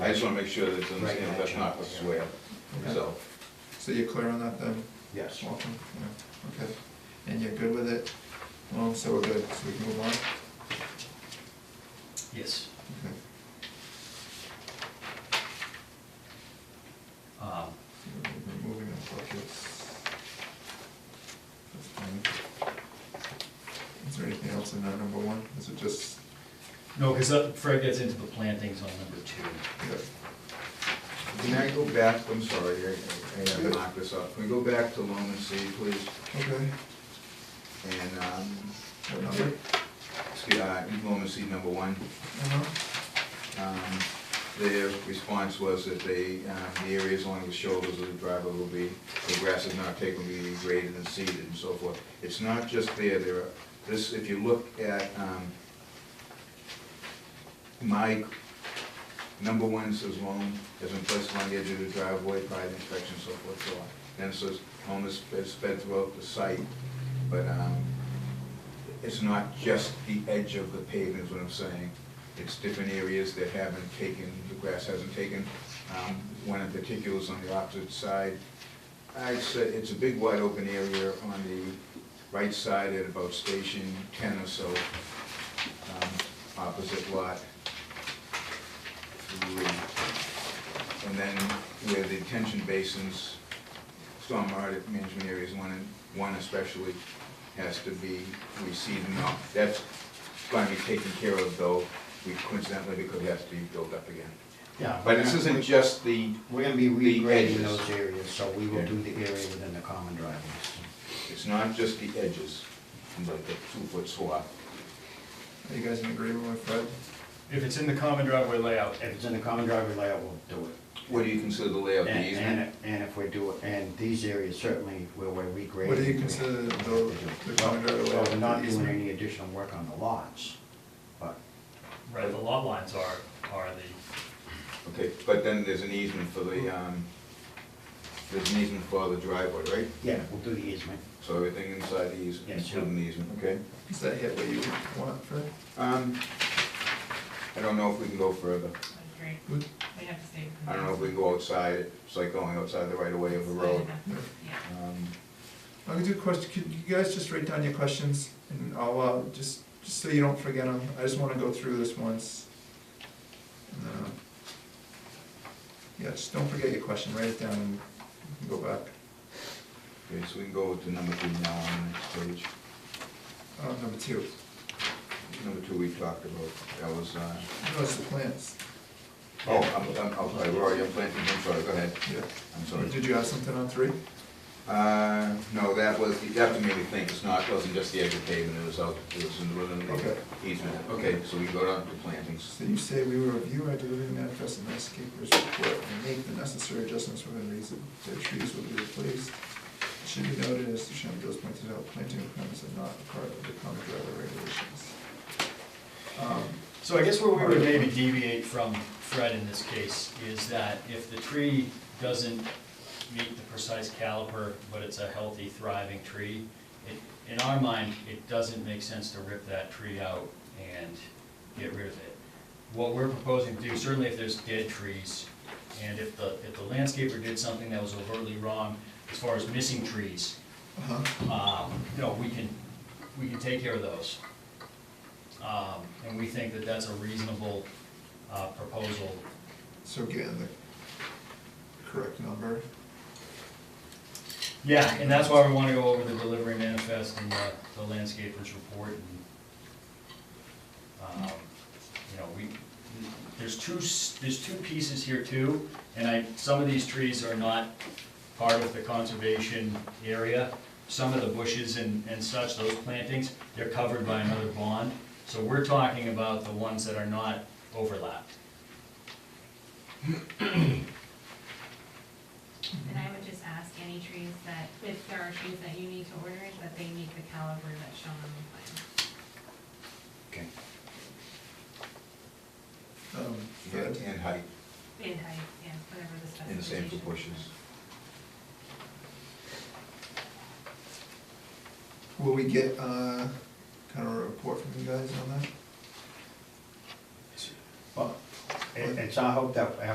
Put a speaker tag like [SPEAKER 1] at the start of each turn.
[SPEAKER 1] I just wanna make sure that it's, in the- you know, that's not a swear, so.
[SPEAKER 2] So you're clear on that then,
[SPEAKER 3] Yes.
[SPEAKER 2] Walton? Yeah, okay. And you're good with it? Well, so we're good, so we can move on?
[SPEAKER 4] Yes.
[SPEAKER 2] Okay.
[SPEAKER 4] Um,
[SPEAKER 2] So we're Moving on, buckets. That's fine. Is there anything else in that number one? Is it just,
[SPEAKER 4] No, because Fred gets into the plantings on number two.
[SPEAKER 2] yeah,
[SPEAKER 1] Can I go back, I'm sorry, I- I gotta knock this up. Can we go back to Loam and C, please?
[SPEAKER 2] okay,
[SPEAKER 1] And, um,
[SPEAKER 2] what number?
[SPEAKER 1] excuse, uh, Loam and C number one.
[SPEAKER 2] Uh-huh.
[SPEAKER 1] Um, Their response was that they, uh, the areas along the shoulders of the driveway will be, the grass is not taken, will be graded and seeded and so forth. It's not just there, there are, this, if you look at um, my number one says loam has been placed along the edge of the driveway, prior to inspection, so forth, so on. Then it says home is is spread throughout the site, but um, it's not just the edge of the pavement is what I'm saying. It's different areas that haven't taken, the grass hasn't taken. Um, One in particular is on the opposite side. I'd say it's a big wide open area on the right side at about station ten or so, um, opposite lot three. And then where the detention basins, storm audit management areas, one, and one especially, has to be reseeded and all. That's going to be taken care of, though, we coincidentally, because it has to be built up again.
[SPEAKER 3] Yeah.
[SPEAKER 1] But this isn't just the,
[SPEAKER 3] We're gonna be
[SPEAKER 1] the
[SPEAKER 3] regrading
[SPEAKER 1] edges.
[SPEAKER 3] those areas, so we will
[SPEAKER 1] Yeah.
[SPEAKER 3] do the area within the common driveways.
[SPEAKER 1] it's not just the edges, like the two-foot swath.
[SPEAKER 2] Are you guys in agreement with Fred?
[SPEAKER 4] If it's in the common driveway layout,
[SPEAKER 3] If it's in the common driveway layout, we'll do it.
[SPEAKER 1] What do you consider the layout, the
[SPEAKER 3] And,
[SPEAKER 1] easement?
[SPEAKER 3] and- and if we do, it, and these areas certainly where we're regrading.
[SPEAKER 2] What do you
[SPEAKER 3] we-
[SPEAKER 2] consider the, the common driveway?
[SPEAKER 3] Well, we're not doing
[SPEAKER 2] easement?
[SPEAKER 3] any additional work on the lots, but
[SPEAKER 5] Right, the lot lines are, are the,
[SPEAKER 1] Okay, but then there's an easement for the, um, there's an easement for the driveway, right?
[SPEAKER 3] yeah, we'll do the easement.
[SPEAKER 1] So everything inside the easement,
[SPEAKER 3] Yes, sir.
[SPEAKER 1] including the easement, okay?
[SPEAKER 2] Is that hit what you want, Fred?
[SPEAKER 1] Um, I don't know if we can go further.
[SPEAKER 6] Great,
[SPEAKER 2] Good.
[SPEAKER 6] we have to stay.
[SPEAKER 1] I don't know if we can go outside, it's like going outside the right of way of the road.
[SPEAKER 6] Yeah.
[SPEAKER 1] Um,
[SPEAKER 2] I could do question, could you guys just write down your questions and I'll, uh, just, just so you don't forget them, I just wanna go through this once. And then, uh, Yeah, just don't forget your question, write it down and we can go back.
[SPEAKER 1] Okay, so we can go to number two now on the next page.
[SPEAKER 2] Uh, number two,
[SPEAKER 1] Number two we talked about, that was, uh,
[SPEAKER 2] notice the plants.
[SPEAKER 1] oh, I'm, I'm, I'm sorry, we're already on planting, I'm sorry, go ahead,
[SPEAKER 2] Yeah.
[SPEAKER 1] I'm sorry.
[SPEAKER 2] Did you have something on three?
[SPEAKER 1] Uh, no, that was, that made me think, it's not, it wasn't just the edge of pavement, it was out, it was in the within
[SPEAKER 2] Okay.
[SPEAKER 1] the easement. Okay, so we go down to plantings.
[SPEAKER 2] So you say we will review our delivering manifest and landscapers report and make the necessary adjustments within reason. The trees will be replaced. It Should be noted, as the Sherman Bills pointed out, planting requirements are not part of the common driveway regulations. Um,
[SPEAKER 4] so I guess where we would maybe deviate from Fred in this case is that if the tree doesn't meet the precise caliper, but it's a healthy, thriving tree, it, in our mind, it doesn't make sense to rip that tree out and get rid of it. What we're proposing to do, certainly if there's dead trees, and if the, if the landscaper did something that was overtly wrong as far as missing trees,
[SPEAKER 2] uh-huh.
[SPEAKER 4] um, you know, we can, we can take care of those. Um, And we think that that's a reasonable uh, proposal.
[SPEAKER 2] So getting the correct number.
[SPEAKER 4] Yeah, and that's why we want to go over the delivery manifest and the the landscapers report and, um, you know, we, there's two, s- there's two pieces here too, and I, some of these trees are not part of the conservation area. Some of the bushes and, and such, those plantings, they're covered by another bond. So we're talking about the ones that are not overlapped.
[SPEAKER 6] And I would just ask any trees that, if there are trees that you need to order, that they meet the caliber that's shown on the
[SPEAKER 3] Okay.
[SPEAKER 6] plan.
[SPEAKER 2] Um,
[SPEAKER 1] Yeah,
[SPEAKER 2] Fred?
[SPEAKER 1] And height,
[SPEAKER 6] In height, yeah, whatever the specification.
[SPEAKER 1] in the same proportions.
[SPEAKER 2] Will we get, uh, kind of a report from you guys on that?
[SPEAKER 3] Well, it- it's our hope that